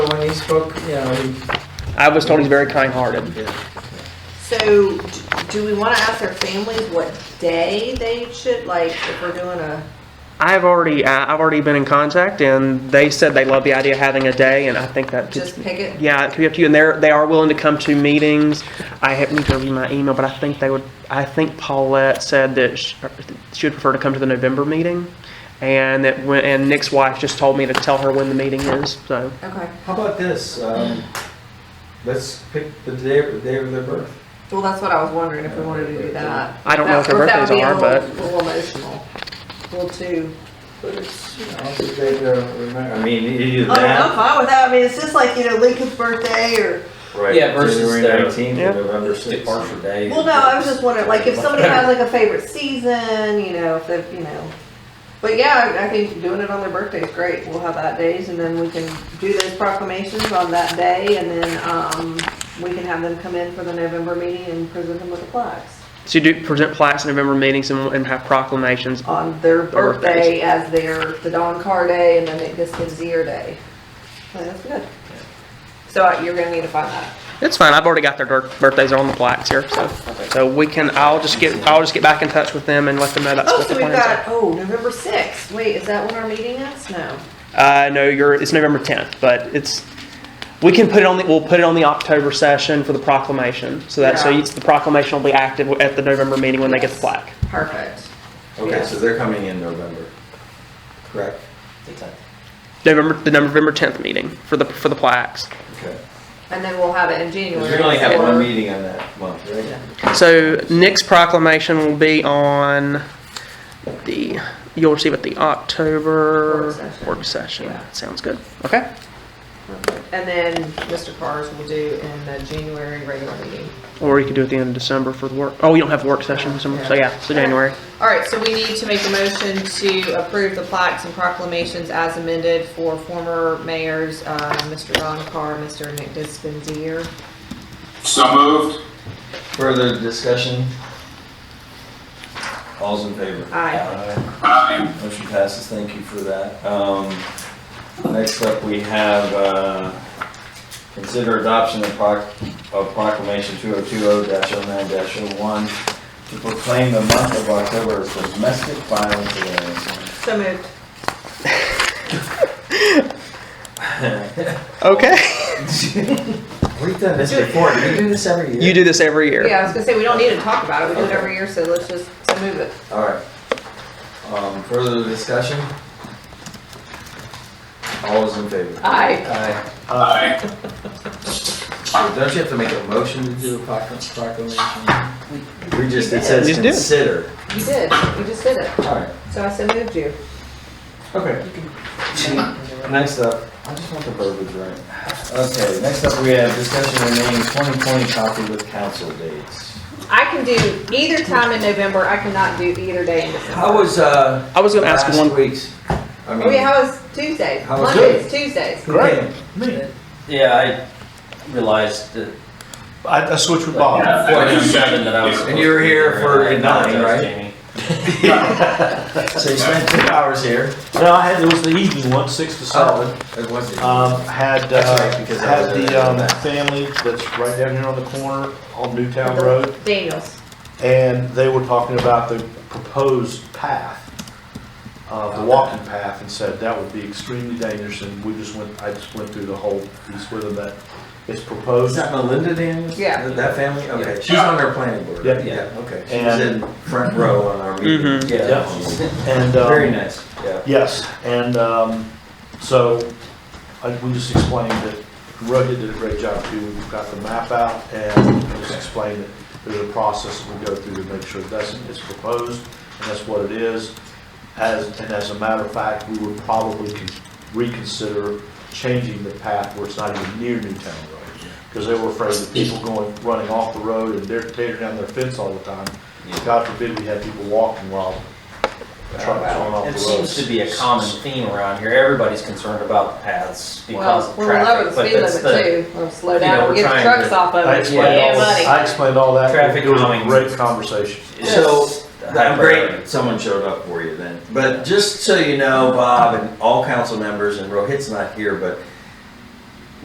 When he spoke, you know, he, I was told he's very kind-hearted. So, d- do we wanna ask their families what day they should, like, if we're doing a, I've already, I- I've already been in contact, and they said they love the idea of having a day, and I think that could- just pick it? yeah, it could be up to you. And they're they are willing to come to meetings. I have, need to review my email, but I think they would. I think Paulette said that she, she would prefer to come to the November meeting, and that when, and Nick's wife just told me to tell her when the meeting is. So Okay, how about this? Um, let's pick the day, the day of their birth. well, that's what I was wondering, if we wanted to do that. I don't know if their Or that would birthdays be a are, but little- Little emotional, little too. But it's, you know, the day they'll remember. I mean, either I mean, I'm that, Oh, fine with that, I mean, it's just like, you know, Lincoln's birthday or, right? Yeah, versus January their- nineteenth Yeah. or November sixth. Departure day. well, no, I was just wondering, like, if somebody has like a favorite season, you know, if they've, you know. But yeah, I I think doing it on their birthday is great, we'll have that days and then we can do those proclamations on that day and then, um, we can have them come in for the November meeting and present them with the plaques so you do present plaques in November meetings and, and have proclamations. on their birthdays. birthday as their, the Don Carr Day and then it gets the Zier Day. So That's good. So uh, you're gonna need to find that. It's fine. I've already got their dir- birthdays on the plaques here, so so we can. I'll just get I'll just get back in touch with them and let them know that's Oh, what so the we've plans got, oh, November sixth, wait, is that when our meeting is? No. are. Uh, no, you're it's November 10th, but it's we can put it on the we'll put it on the October session for the proclamation. So that so Yeah. it's, the proclamation will be active at the November meeting when they get the Yes. plaque. Perfect. Okay, Yeah. so they're coming in November. Correct. November the November 10th meeting for the for the plaques. Okay. And then we'll have it in 'Cause January. we only have one or- meeting on that month, right? So Nick's proclamation will be on the, you'll receive it the October Work session. work session. Yeah. Sounds good. Okay. And then Mr. Carr's will do in the January regular meeting. Or you could do it at the end of December for the work. Oh, you don't have work session in December, so yeah, so January. All right, so we need to make a motion to approve the plaques and proclamations as amended for former mayors, uh, Mr. Don Carr, Mr. Nick Dispenzier. So moved. Further discussion? All's in favor? Aye. Aye. Motion passes, thank you for that. Um, Next up, we have, uh, consider adoption of proc- of proclamation 2020-09-01 to proclaim the month of October as Domestic Violence Awareness Month. So moved. Okay. We've done this before, do we do this every year? You do this every year. Yeah, I was gonna say, we don't need to talk about it, we do it Okay. every year, so let's just so move it. All right. Um, Further discussion? All is in favor? Aye. Aye. Uh, Aye. So Don't you have to make a motion to do a procl- proclamation? We just, it says Just do it. consider. You did, you just did it, All right. so I so moved you. Okay. Next up, I just want the verbiage right. Okay, next up we have discussion of naming 2020 copy with council dates. I can do either time in November, I cannot do either day in December. How was, uh? I was gonna ask one- Last week's. I Oh, yeah, mean. how was Tuesdays? How was Mondays, Tuesdays. Great. Yeah, I realized that. I, I switched with oh, Bob. Yeah. I knew that I was And you were here for I apologize, nine, right? Jamie. So you spent two hours here. No, I had, it was the evening one, six to seven. It wasn't. Um, had, Oh. That's uh, right, because I had was the, there. um, family that's right down here on the corner on Newtown Road. Daniels. And they were talking about the proposed path, uh, the walking path and said that would be extremely dangerous. And we just went, I just went through the whole piece with them that it's Is proposed. that Melinda Daniels? Yeah. That family? Okay, she's on our planning board. Yeah. Okay. She was And- in front row on our meeting. Mhm. Yeah. And, um, Very nice, yeah. Yes, and um, so I- we just explained that Rohit did a great job too. We've got the map out and we just explained that there's a process we go through to make sure that's, it's proposed and that's what it is. As, and as a matter of fact, we would probably con- reconsider changing the path where it's not even near Newtown Road. Because they were afraid of people going, running off the road and they're tearing down their fence all the time. God forbid we had people walking while trucks going off the road. It seems to be a common theme around here. Everybody's concerned about the paths because Well, of we're over the traffic. but speed that's limit the- too. We'll slow you know, down, we're and get the trying trucks to- off of I it. explained Yeah, all, buddy. I explained all that. Traffic It was a calming. great conversation. it's So, just a I'm hyper- great, someone showed up for you then. But just so you know, Bob and all council members, and Rohit's not here, but